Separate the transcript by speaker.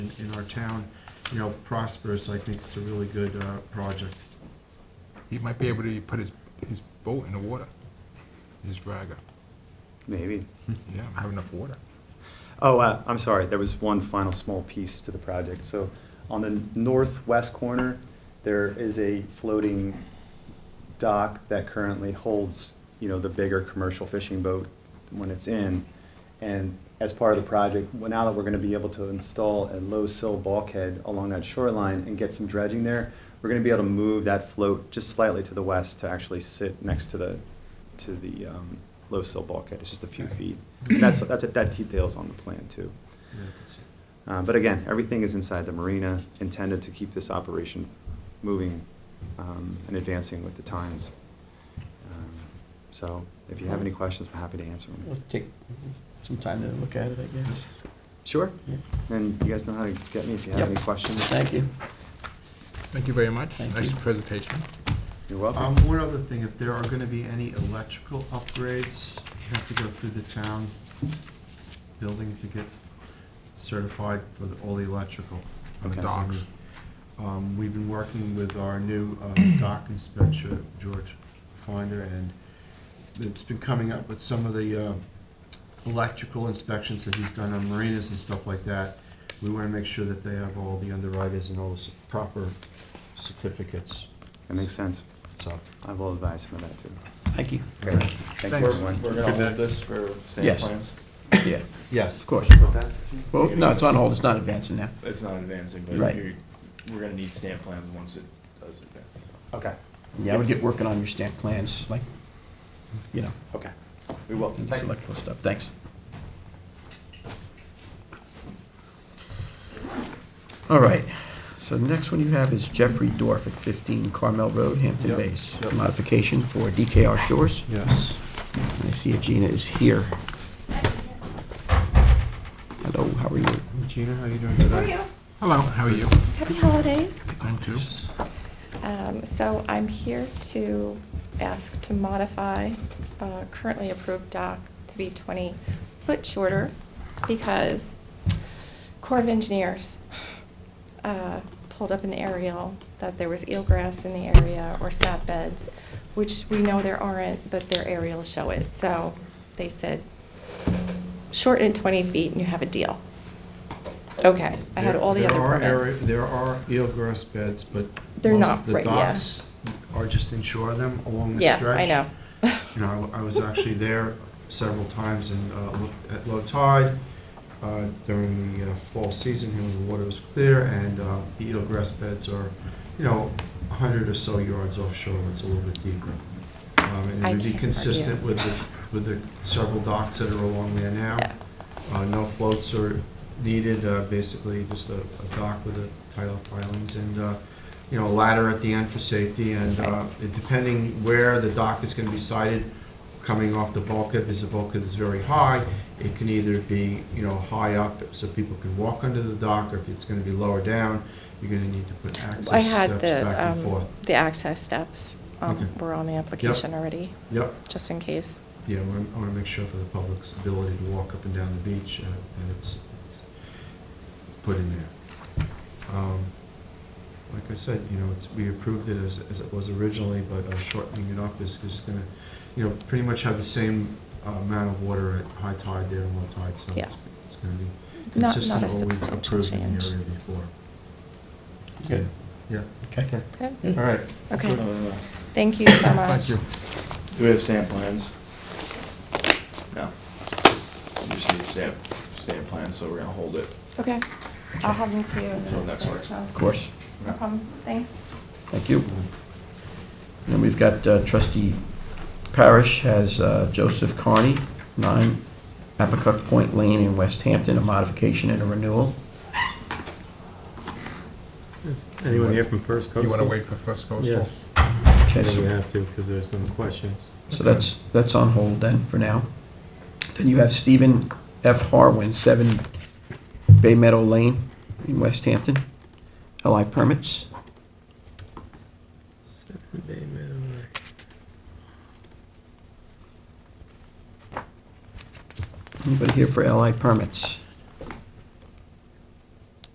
Speaker 1: in, in our town, you know, prospers, I think it's a really good uh, project.
Speaker 2: He might be able to put his, his boat in the water, his dragger.
Speaker 3: Maybe.
Speaker 2: Yeah, I have enough water.
Speaker 3: Oh, uh, I'm sorry, there was one final small piece to the project. So on the northwest corner, there is a floating dock that currently holds, you know, the bigger commercial fishing boat when it's in. And as part of the project, well, now that we're gonna be able to install a low sill bulkhead along that shoreline and get some dredging there, we're gonna be able to move that float just slightly to the west to actually sit next to the, to the, um, low sill bulkhead. It's just a few feet. And that's, that's, that detail's on the plan too.
Speaker 1: Yeah, it's-
Speaker 3: Uh, But again, everything is inside the marina, intended to keep this operation moving um, and advancing with the times. Um, So if you have any questions, I'm happy to answer them.
Speaker 4: Let's take some time to look at it, I guess.
Speaker 3: Sure,
Speaker 4: Yeah.
Speaker 3: and you guys know how to get me if you have
Speaker 4: Yep.
Speaker 3: any questions.
Speaker 4: Thank you.
Speaker 2: Thank you very much.
Speaker 4: Thank
Speaker 2: Nice
Speaker 4: you.
Speaker 2: presentation.
Speaker 3: You're welcome.
Speaker 1: Um, one other thing, if there are gonna be any electrical upgrades, you have to go through the town building to get certified for the, all the electrical. on the
Speaker 3: Okay.
Speaker 1: docks. Um, we've been working with our new, um, dock inspector, George Finder, and it's been coming up with some of the, uh, electrical inspections that he's done on marinas and stuff like that. We wanna make sure that they have all the underwriters and all the s- proper certificates,
Speaker 3: That makes sense.
Speaker 1: so.
Speaker 3: I will advise him of that too.
Speaker 4: Thank you.
Speaker 3: Okay, thank you,
Speaker 2: Thanks.
Speaker 3: everyone.
Speaker 5: We're gonna hold this for sand
Speaker 4: Yes.
Speaker 5: plans?
Speaker 4: Yeah,
Speaker 1: Yes.
Speaker 4: of course.
Speaker 3: What's that?
Speaker 4: Well, no, it's on hold, it's not advancing now.
Speaker 5: It's not advancing,
Speaker 4: Right.
Speaker 5: but you're, we're gonna need stamp plans once it does advance.
Speaker 3: Okay,
Speaker 4: Yeah, I would get working on your stamp plans, like, you know,
Speaker 3: okay. We will.
Speaker 4: electrical stuff, thanks. All right, so the next one you have is Jeffrey Dorf at 15 Carmel Road, Hampton
Speaker 1: Yep,
Speaker 4: Bays.
Speaker 1: yep.
Speaker 4: Modification for DKR Shores.
Speaker 1: Yes.
Speaker 4: And I see Gina is here. Hello, how are you?
Speaker 1: Gina, how you doing today?
Speaker 6: How are you?
Speaker 2: Hello, how are you?
Speaker 6: Happy holidays.
Speaker 2: I'm too.
Speaker 6: Um, So I'm here to ask to modify uh, currently approved dock to be 20-foot shorter because Corps of Engineers uh, pulled up an aerial that there was eelgrass in the area or sap beds, which we know there aren't, but their aerials show it. So they said, shorten it 20 feet and you have a deal. Okay, I had all the
Speaker 1: There-
Speaker 6: other
Speaker 1: there are
Speaker 6: permits.
Speaker 1: area- There are eelgrass beds, but.
Speaker 6: They're
Speaker 1: most
Speaker 6: not
Speaker 1: of The
Speaker 6: right, yeah.
Speaker 1: docks are just inshore them along the
Speaker 6: Yeah,
Speaker 1: stretch.
Speaker 6: I know.
Speaker 1: You know, I I was actually there several times and uh, looked at low tide uh, during the uh, fall season, when the water was clear, and uh, the eelgrass beds are, you know, 100 or so yards offshore, it's a little bit deeper. Um, And
Speaker 6: I
Speaker 1: it would be
Speaker 6: can't-
Speaker 1: consistent
Speaker 6: yeah.
Speaker 1: with the, with the several docks that are along there now.
Speaker 6: Yeah.
Speaker 1: Uh, No floats are needed, uh, basically just a a dock with a tidal pilings and, uh, you know, a ladder at the end for safety. And uh, it- depending where the dock is going to be sited, coming off the bulkhead, because the bulkhead is very high, it can either be, you know, high up so people can walk under the dock, or if it's going to be lower down, you're going to need to put access
Speaker 6: I
Speaker 1: steps
Speaker 6: had
Speaker 1: back
Speaker 6: the,
Speaker 1: and
Speaker 6: um,
Speaker 1: forth.
Speaker 6: the access steps,
Speaker 1: Okay.
Speaker 6: um, were on the application already,
Speaker 1: Yep,
Speaker 6: just in case.
Speaker 1: yeah, I want to make sure for the public's ability to walk up and down the beach, uh, that it's it's put in there. Um, Like I said, you know, it's, we approved it as, as it was originally, but uh, shortening it up is just going to, you know, pretty much have the same uh, amount of water at high tide there and low tide, so
Speaker 6: Yeah.
Speaker 1: it's, it's going to be
Speaker 6: Not-
Speaker 1: consistent
Speaker 6: not a
Speaker 1: with what we've
Speaker 6: substantial
Speaker 1: approved in the
Speaker 6: change.
Speaker 1: area before.
Speaker 4: Good.
Speaker 1: Yeah,
Speaker 4: Okay.
Speaker 6: Okay.
Speaker 1: all right.
Speaker 6: Okay,
Speaker 5: Uh,
Speaker 6: thank you so much.
Speaker 2: Thank you.
Speaker 5: Do we have stamp plans? No. We just need stamp, stamp plans, so we're gonna hold it.
Speaker 6: Okay, I'll have them to you.
Speaker 5: Till next week.
Speaker 4: Of course.
Speaker 6: No problem, thanks.
Speaker 4: Thank you. And then we've got uh, trustee Parish has uh, Joseph Carney, 9 Apicook Point Lane in West Hampton, a modification and a renewal.
Speaker 2: Anyone here
Speaker 7: from First
Speaker 2: You want to wait for First Coastal?
Speaker 7: Yes,
Speaker 4: Okay,
Speaker 7: I think we
Speaker 4: so-
Speaker 7: have to, because there's some questions.
Speaker 4: so that's, that's on hold then, for now. Then you have Stephen F. Harwin, 7 Bay Meadow Lane in West Hampton, LI permits.
Speaker 7: Seven Bay Meadow.
Speaker 4: Anybody here for LI permits?